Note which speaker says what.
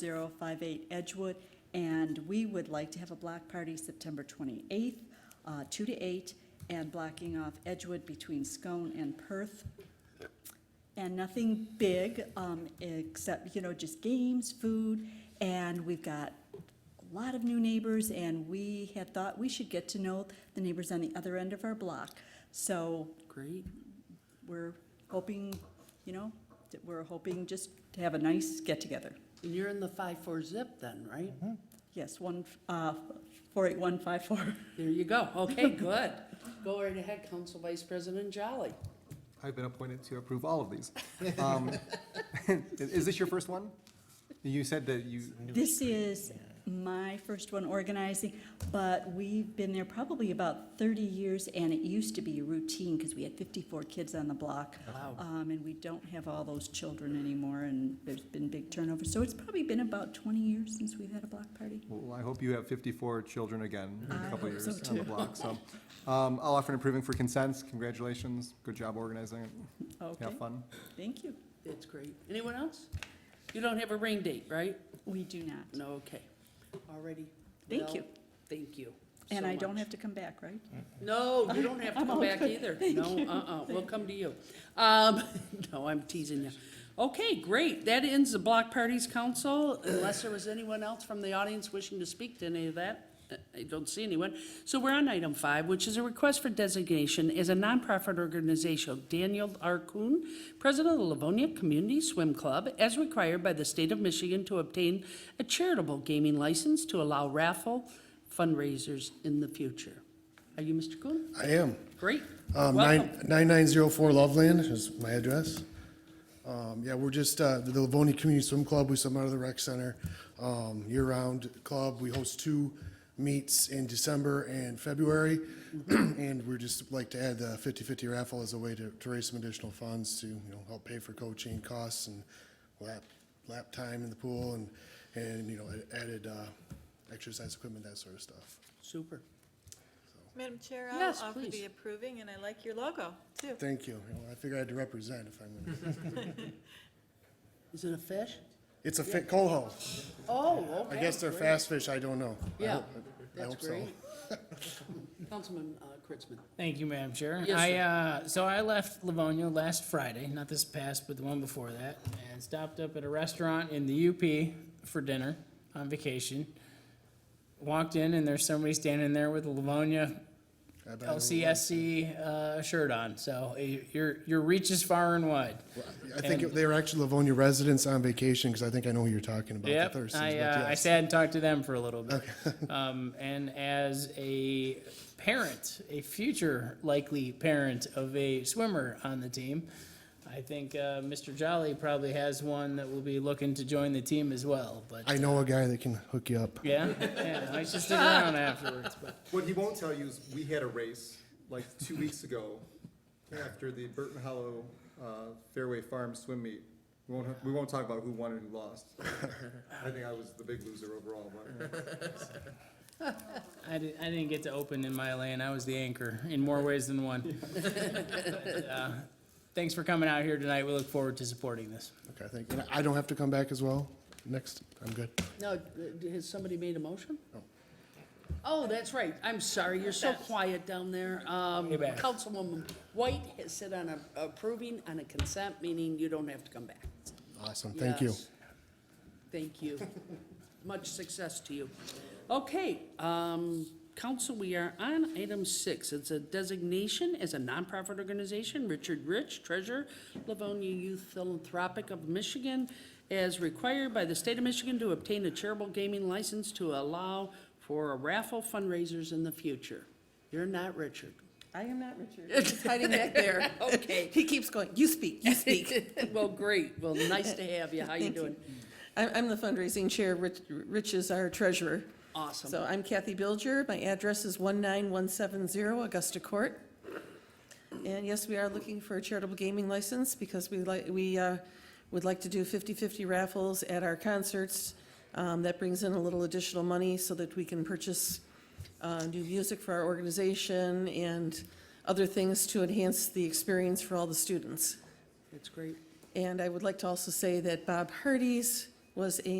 Speaker 1: 4058 Edgewood, and we would like to have a block party September 28th, uh, 2 to 8, and blocking off Edgewood between Scone and Perth. And nothing big, um, except, you know, just games, food, and we've got a lot of new neighbors, and we had thought we should get to know the neighbors on the other end of our block. So
Speaker 2: Great.
Speaker 1: we're hoping, you know, that we're hoping just to have a nice get-together.
Speaker 2: And you're in the five-four zip then, right?
Speaker 1: Yes, one, uh, four eight one five four.
Speaker 2: There you go. Okay, good. Go right ahead, Council Vice President Jolly.
Speaker 3: I've been appointed to approve all of these. Um, Is this your first one? You said that you,
Speaker 1: This is my first one organizing, but we've been there probably about thirty years, and it used to be a routine, because we had fifty-four kids on the block.
Speaker 2: Wow.
Speaker 1: Um, and we don't have all those children anymore, and there's been big turnover, so it's probably been about twenty years since we've had a block party.
Speaker 3: well, I hope you have 54 children again in
Speaker 1: I
Speaker 3: a couple
Speaker 1: hope
Speaker 3: of
Speaker 1: so
Speaker 3: years on the block, so. um, I'll offer an approving for consents. Congratulations. Good job organizing it.
Speaker 1: Okay,
Speaker 3: Have fun.
Speaker 1: thank you.
Speaker 2: That's great. Anyone else? You don't have a rain date, right?
Speaker 1: We do not,
Speaker 2: No, okay. Already.
Speaker 1: Thank
Speaker 2: Well,
Speaker 1: you.
Speaker 2: Thank you.
Speaker 1: and
Speaker 2: so
Speaker 1: I don't
Speaker 2: much.
Speaker 1: have to come back, right?
Speaker 2: No, you don't have to come back either. No, uh-uh, we'll come to you. Um, no, I'm teasing you. Okay, great. That ends the block parties council, unless there was anyone else from the audience wishing to speak to any of that. uh, I don't see anyone. So we're on item five, which is a request for designation as a nonprofit organization. Daniel R. Kuhn, president of the Livonia Community Swim Club, as required by the state of Michigan to obtain a charitable gaming license to allow raffle fundraisers in the future. Are you Mr. Kuhn?
Speaker 4: I am.
Speaker 2: Great.
Speaker 4: Um,
Speaker 2: Welcome.
Speaker 4: nine- 9904 Loveland is my address. Um, Yeah, we're just, uh, the Livonia Community Swim Club, we swim out of the rec center, um, year-round club. We host two meets in December and February. And we're just like to add the 50/50 raffle as a way to to raise some additional funds to, you know, help pay for coaching costs and lap, lap time in the pool and, and, you know, added uh, exercise equipment, that sort of stuff.
Speaker 2: Super.
Speaker 5: Madam Chair,
Speaker 2: Yes,
Speaker 5: I'll offer
Speaker 2: please.
Speaker 5: the approving, and I like your logo, too.
Speaker 4: Thank you. You know, I figured I had to represent if I'm going to.
Speaker 2: Is it a fish?
Speaker 4: It's a fi- coho.
Speaker 2: Oh, okay.
Speaker 4: I guess they're
Speaker 2: great.
Speaker 4: fast fish, I don't know. I
Speaker 2: Yeah,
Speaker 4: hope- I
Speaker 2: that's
Speaker 4: hope so.
Speaker 2: great. Councilman uh, Kritzman.
Speaker 6: Thank you, Madam Chair.
Speaker 2: Yes,
Speaker 6: I,
Speaker 2: sir.
Speaker 6: uh, so I left Livonia last Friday, not this past, but the one before that, and stopped up at a restaurant in the UP for dinner on vacation. Walked in and there's somebody standing there with a Livonia
Speaker 4: I bet it was-
Speaker 6: LCSC, uh, shirt on, so uh, your, your reach is far and wide.
Speaker 4: I think it- they were actually Livonia residents on vacation, because I think I know who you're talking about. the
Speaker 6: Yep,
Speaker 4: Thurston's,
Speaker 6: I,
Speaker 4: but
Speaker 6: uh, I
Speaker 4: yes.
Speaker 6: sat and talked to them for a little bit. Um, and as a parent, a future likely parent of a swimmer on the team, I think, uh, Mr. Jolly probably has one that will be looking to join the team as well, but,
Speaker 4: I know a guy that can hook you up.
Speaker 6: yeah, yeah, I just stick around afterwards, but.
Speaker 3: What he won't tell you is we had a race like two weeks ago after the Burton Hollow uh, Fairway Farm Swim Meet. We won't, we won't talk about who won and who lost. I think I was the big loser overall, but
Speaker 6: I didn't, I didn't get to open in my lane. I was the anchor in more ways than one. But, uh, Thanks for coming out here tonight. We look forward to supporting this.
Speaker 4: Okay, I think, and I don't have to come back as well next, I'm good.
Speaker 2: No, uh, has somebody made a motion? Oh, that's right. I'm sorry, you're so quiet down there. Um,
Speaker 6: Hey, back.
Speaker 2: Councilwoman White has said on a- approving on a consent, meaning you don't have to come back.
Speaker 4: Awesome, thank you.
Speaker 2: Yes. Thank you. Much success to you. Okay, um, council, we are on item six. It's a designation as a nonprofit organization, Richard Rich, Treasurer, Livonia Youth Philanthropic of Michigan, as required by the state of Michigan to obtain a charitable gaming license to allow for raffle fundraisers in the future. You're not Richard.
Speaker 7: I am not Richard. He's hiding back there.
Speaker 2: Okay.
Speaker 7: He keeps going, you speak, you speak.
Speaker 2: Well, great. Well, nice to have you. How you
Speaker 7: Thank you.
Speaker 2: doing?
Speaker 7: I'm, I'm the fundraising chair, Rich, Rich is our treasurer.
Speaker 2: Awesome.
Speaker 7: So I'm Kathy Bilger, my address is 19170 Augusta Court. And yes, we are looking for a charitable gaming license because we like, we uh, would like to do 50/50 raffles at our concerts. Um, That brings in a little additional money so that we can purchase uh, new music for our organization and other things to enhance the experience for all the students.
Speaker 2: That's great.
Speaker 7: And I would like to also say that Bob Hardee's was a